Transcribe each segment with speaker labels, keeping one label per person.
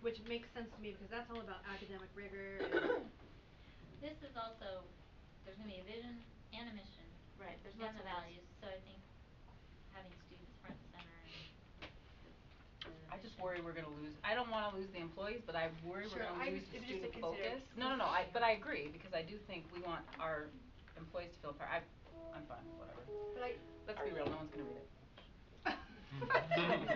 Speaker 1: which makes sense to me because that's all about academic rigor and
Speaker 2: This is also, there's gonna be a vision and a mission.
Speaker 3: Right, there's lots of
Speaker 2: And the
Speaker 3: those.
Speaker 2: values, so I think having students front and center and the
Speaker 3: I just
Speaker 2: mission.
Speaker 3: worry we're gonna lose, I don't wanna lose the employees, but I worry
Speaker 1: Sure,
Speaker 3: we're
Speaker 1: I
Speaker 3: gonna lose
Speaker 1: just-
Speaker 3: the student
Speaker 1: it was just a
Speaker 3: focus.
Speaker 1: consideration.
Speaker 3: No, no, no, I, but I agree, because I do think we want our employees to feel part, I, I'm fine, with whatever.
Speaker 1: but I
Speaker 3: Let's be real, no one's gonna read it.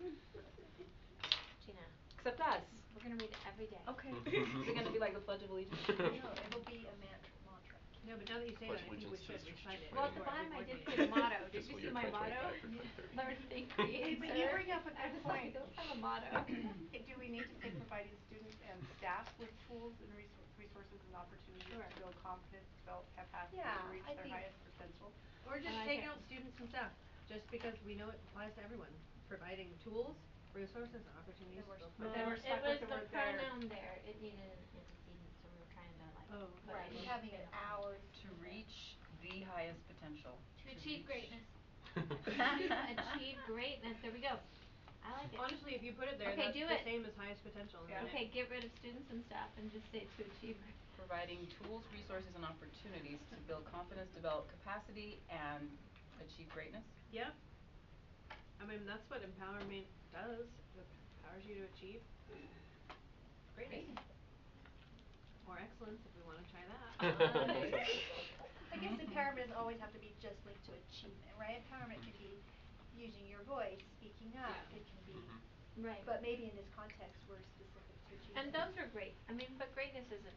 Speaker 4: Gina,
Speaker 3: Except us.
Speaker 4: we're gonna read it every day.
Speaker 3: Okay. Is it gonna be like the Pledge of Allegiance?
Speaker 1: No, it'll be a mantra mantra. No, but now that you say that,
Speaker 5: Pledge
Speaker 1: I think we
Speaker 5: allegiance
Speaker 1: should
Speaker 5: to the
Speaker 1: recite it.
Speaker 5: Constitution
Speaker 4: Well, at the
Speaker 1: before every
Speaker 4: bottom I
Speaker 1: board
Speaker 4: did
Speaker 1: meeting.
Speaker 4: put a motto, did
Speaker 5: Fiscal
Speaker 4: you see
Speaker 5: year
Speaker 4: my
Speaker 5: 2025
Speaker 4: motto?
Speaker 5: through 2030.
Speaker 4: Learn, think,
Speaker 1: Hey,
Speaker 4: create,
Speaker 1: but you
Speaker 4: serve.
Speaker 1: bring up an
Speaker 4: I was like,
Speaker 1: excellent-
Speaker 4: don't have a motto.
Speaker 6: Okay, Do we need to say providing students and staff with tools and resou- resources and opportunities to
Speaker 4: Sure.
Speaker 6: build confidence, develop capacity,
Speaker 1: Yeah,
Speaker 6: and reach
Speaker 1: I
Speaker 6: their
Speaker 1: think-
Speaker 6: highest potential?
Speaker 1: Or just
Speaker 4: I
Speaker 1: take
Speaker 4: like it.
Speaker 1: out students and staff, just because we know it applies to everyone, providing tools, resources, and opportunities to go
Speaker 6: But
Speaker 1: forward.
Speaker 6: then
Speaker 4: Well,
Speaker 6: we're stuck with the word there.
Speaker 4: It was the pronoun there, it needed an antecedent, so we were trying to like.
Speaker 1: Oh,
Speaker 4: put
Speaker 1: Right,
Speaker 4: it in.
Speaker 1: having
Speaker 4: Yeah.
Speaker 3: To reach the highest potential.
Speaker 2: To achieve
Speaker 3: reach-
Speaker 2: greatness.
Speaker 4: Achieve greatness, there we go. I like it.
Speaker 1: Honestly, if you put it there,
Speaker 4: Okay,
Speaker 1: that's
Speaker 4: do
Speaker 1: the
Speaker 4: it.
Speaker 1: same as highest potential, and
Speaker 6: Yeah.
Speaker 1: then
Speaker 4: Okay,
Speaker 1: it-
Speaker 4: get rid of students and staff and just say to achieve. great-
Speaker 3: Providing tools, resources, and opportunities to build confidence, develop capacity, and achieve greatness.
Speaker 1: Yep. I mean, that's what empowerment does, it empowers you to achieve greatness. Or excellence, if we wanna try that.
Speaker 7: I guess empowerment doesn't always have to be just linked to achievement, right? Empowerment can be using your voice, speaking up,
Speaker 1: Yeah.
Speaker 7: it can be,
Speaker 4: Right.
Speaker 7: but maybe in this context, we're specific to achievement.
Speaker 4: And those are great, I mean, but greatness isn't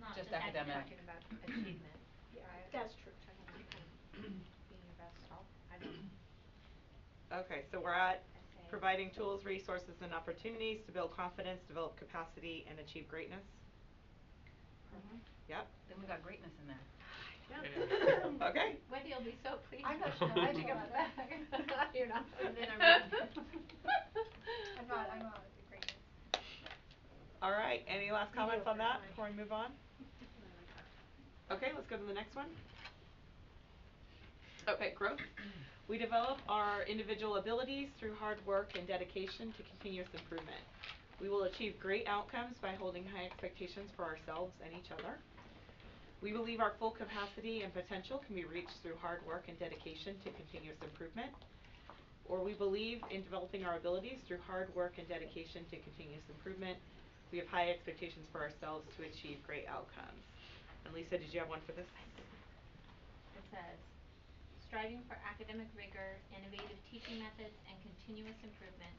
Speaker 2: It's not
Speaker 3: Just
Speaker 2: just
Speaker 3: academic.
Speaker 2: academic.
Speaker 4: talking about achievement,
Speaker 7: Yeah,
Speaker 4: right?
Speaker 7: that's true.
Speaker 4: Trying to be kind of being your best self, I don't know.
Speaker 8: Okay, so we're
Speaker 4: I
Speaker 8: at
Speaker 4: say-
Speaker 8: providing tools, resources, and opportunities to build confidence, develop capacity, and achieve greatness.
Speaker 3: Mm-hmm.
Speaker 8: Yep.
Speaker 3: Then we got greatness in there.
Speaker 1: Yep.
Speaker 8: Okay.
Speaker 4: Wendy will be so pleased.
Speaker 7: I'm not sure how I
Speaker 4: Take it
Speaker 7: feel about that.
Speaker 4: back. You're not.
Speaker 1: And then I'm
Speaker 7: I'm not, I'm not a great.
Speaker 8: All right. Any last
Speaker 7: You
Speaker 8: comments
Speaker 7: go
Speaker 8: on that
Speaker 7: first,
Speaker 8: before we move on? Okay, let's go to the next one. Okay, growth. We develop our individual abilities through hard work and dedication to continuous improvement. We will achieve great outcomes by holding high expectations for ourselves and each other. We believe our full capacity and potential can be reached through hard work and dedication to continuous improvement. Or we believe in developing our abilities through hard work and dedication to continuous improvement. We have high expectations for ourselves to achieve great outcomes. And Lisa, did you have one for this?
Speaker 4: It says, striving for academic rigor, innovative teaching methods, and continuous improvement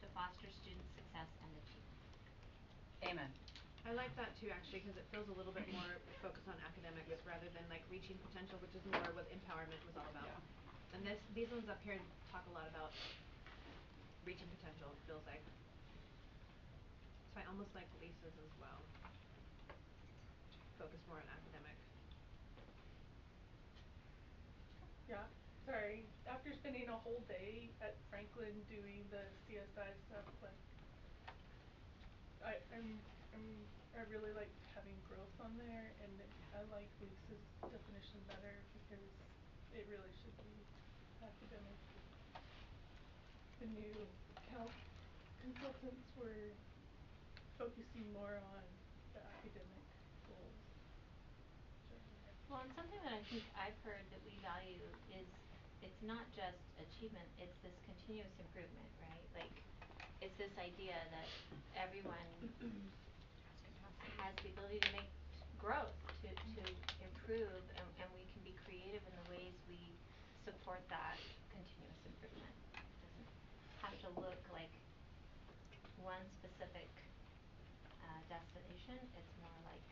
Speaker 4: to foster student success and achievement.
Speaker 3: Amen.
Speaker 1: I like that too, actually, because it feels a little bit more focused on academics rather than like reaching potential, which is more what empowerment was all about. And this, these ones up here talk a lot about reaching potential, it feels like. So I almost like Lisa's as well. Focus more on academic.
Speaker 9: Yeah, sorry. After spending a whole day at Franklin doing the CSI stuff, like I, I'm, I'm, I really like having growth on there, and it- I like Lisa's definition better because it really should be academic. The new Cal consultants were focusing more on the academic goals. which are-
Speaker 4: Well, and something that I think I've heard that we value is it's not just achievement, it's this continuous improvement, right? Like, it's this idea that everyone has the ability to make growth, to to improve, and and we can be creative in the ways we support that continuous improvement. Doesn't have to look like one specific uh destination, it's more like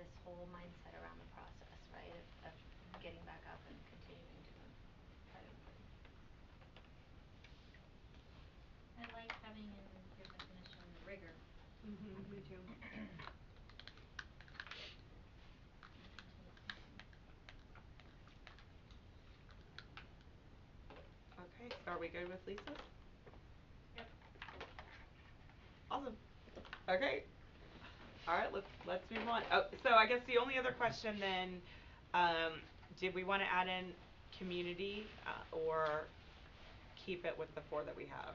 Speaker 4: this whole mindset around the process, right, of of getting back up and continuing to im- try to improve.
Speaker 2: I like having in your definition rigor.
Speaker 1: Mm-hmm, me too.
Speaker 8: Okay, so are we good with Lisa?
Speaker 9: Yep.
Speaker 8: Awesome. Okay. All right, let's let's move on. Oh, so I guess the only other question then, um, did we want to add in community uh, or keep it with the four that we have?